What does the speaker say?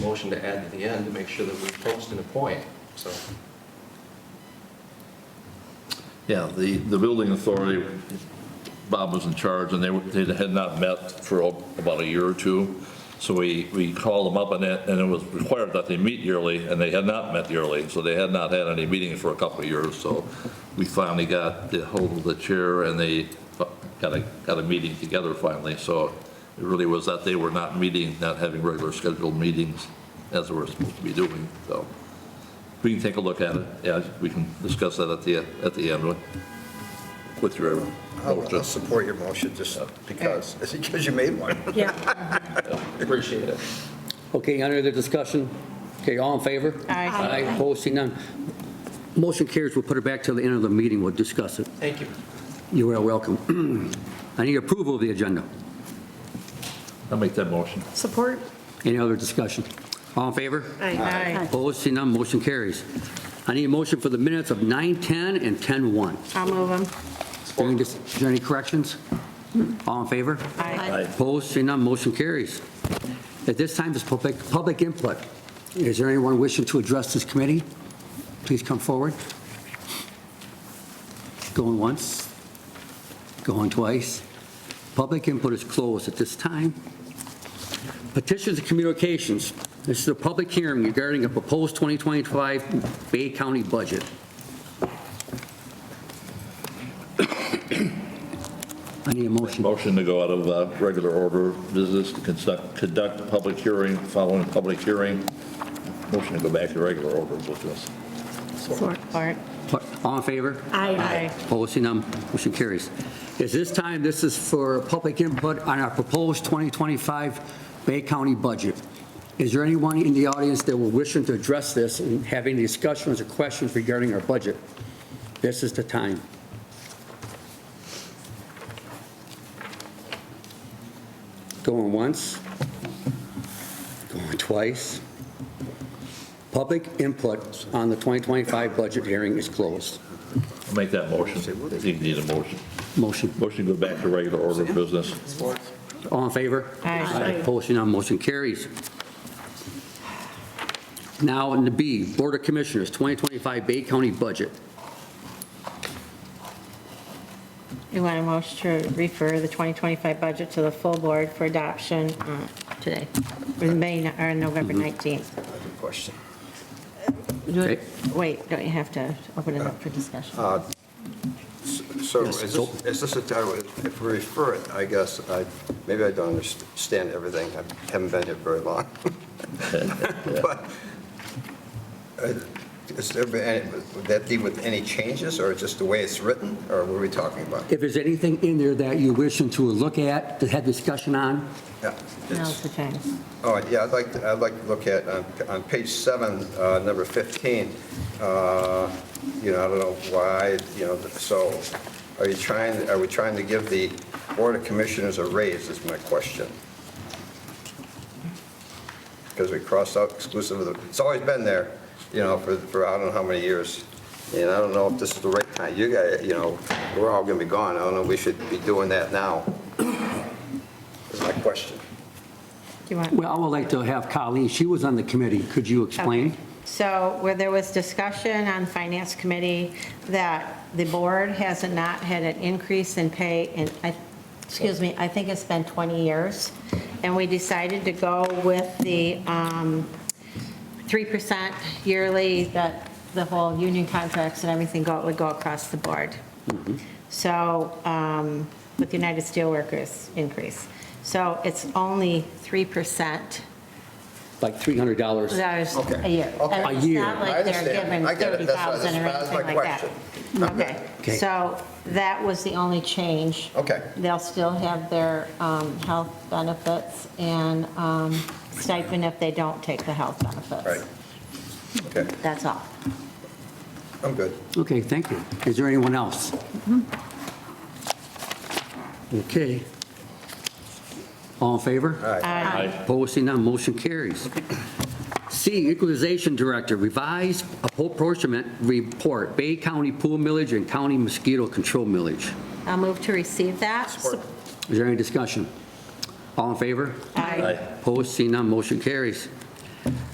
motion to add to the end to make sure that we post and appoint, so. Yeah, the, the building authority, Bob was in charge, and they, were- they had not met for about a year or two. So we, we called them up, and it, and it was required that they meet yearly, and they had not met yearly, so they had not had any meetings for a couple of years. So we finally got the hold of the chair, and they got a, got a meeting together finally. So it really was that they were not meeting, not having regular scheduled meetings as they were supposed to be doing, so. We can take a look at it, yeah, we can discuss that at the, at the end with- with your I'll I'll motion. support your motion just because, because you made one. Yeah. Appreciate it. Okay, under the discussion, okay, all in favor? Aye. Aye, opposed, seeing none. Motion carries, we'll put it back till the end of the meeting, we'll discuss it. Thank you. You are welcome. I need approval of the agenda. I'll make that motion. Support? Any other discussion? All in favor? Aye. Opposed, seeing none, motion carries. I need a motion for the minutes of 9:10 and 10:01. I'll move them. Is there any- Is there any corrections? All in favor? Aye. Opposed, seeing none, motion carries. At this time, is public, public input. Is there anyone wishing to address this committee? Please come forward. Going once, going twice. Public input is closed at this time. Petitions and communications. This is a public hearing regarding a proposed 2025 Bay County budget. I need a motion. Motion to go out of uh, regular order of business, to conduct, conduct a public hearing, following a public hearing. Motion to go back to regular order of business. Support. All in favor? Aye. Opposed, seeing none, motion carries. Is this time, this is for public input on our proposed 2025 Bay County budget. Is there anyone in the audience that will wishing to address this and have any discussions or questions regarding our budget? This is the time. Going once, going twice. Public input on the 2025 budget hearing is closed. I'll make that motion. I think you need a motion. Motion. Motion to go back to regular order of business. All in favor? Aye. Aye. Opposed, none, motion carries. Now, in the B, Board of Commissioners, 2025 Bay County Budget. You want a motion to refer the 2025 budget to the full board for adoption uh, today, or May, or November 19th. Question. Okay. Wait, don't you have to open it up for discussion? So Yes, is so- this, is this a time, if we refer it, I guess, I, maybe I don't understand everything. I haven't been here very long. But uh, is there, been any- would that be with any changes or just the way it's written? Or what are we talking about? If there's anything in there that you're wishing to look at, to have discussion on, Yeah, it's- Now's the time. All right, Oh, yeah, I'd like, to- I'd like to look at, on- on page seven, uh, number 15, uh, you know, I don't know why, you know, so are you trying, are we trying to give the Board of Commissioners a raise is my question? Because we crossed out exclusive of the, it's always been there, you know, for, for I don't know how many years. And I don't know if this is the right time. You guys, you know, we're all going to be gone. I don't know, if we should be doing that now. Is my question. Do you want? well, I would like to have Colleen, she was on the committee, could you explain? Okay. So where there was discussion on Finance Committee that the board has not had an increase in pay in, I- excuse me, I think it's been 20 years, and we decided to go with the um, 3% yearly, that the whole union contracts and everything go- would go across the board. So, um, with United Steelworkers increase. So it's only 3% Like $300. dollars Okay. a year. Okay. And A year. It's not like I they're understand. given I get it. That's why- 30,000 or that's my anything like that. Okay. Okay. Okay, so that was the only change. Okay. They'll still have their um, health benefits and um, stipend if they don't take the health benefits. Right. Okay, That's all. I'm good. Okay, thank you. Is there anyone else? Okay. All in favor? All right. Aye. Opposed, seeing none, motion carries. C, Equalization Director, revised apportionment report, Bay County pool millage and county mosquito control millage. I'll move to receive that. Is there any discussion? All in favor? Aye. Aye. Opposed, seeing none, motion carries.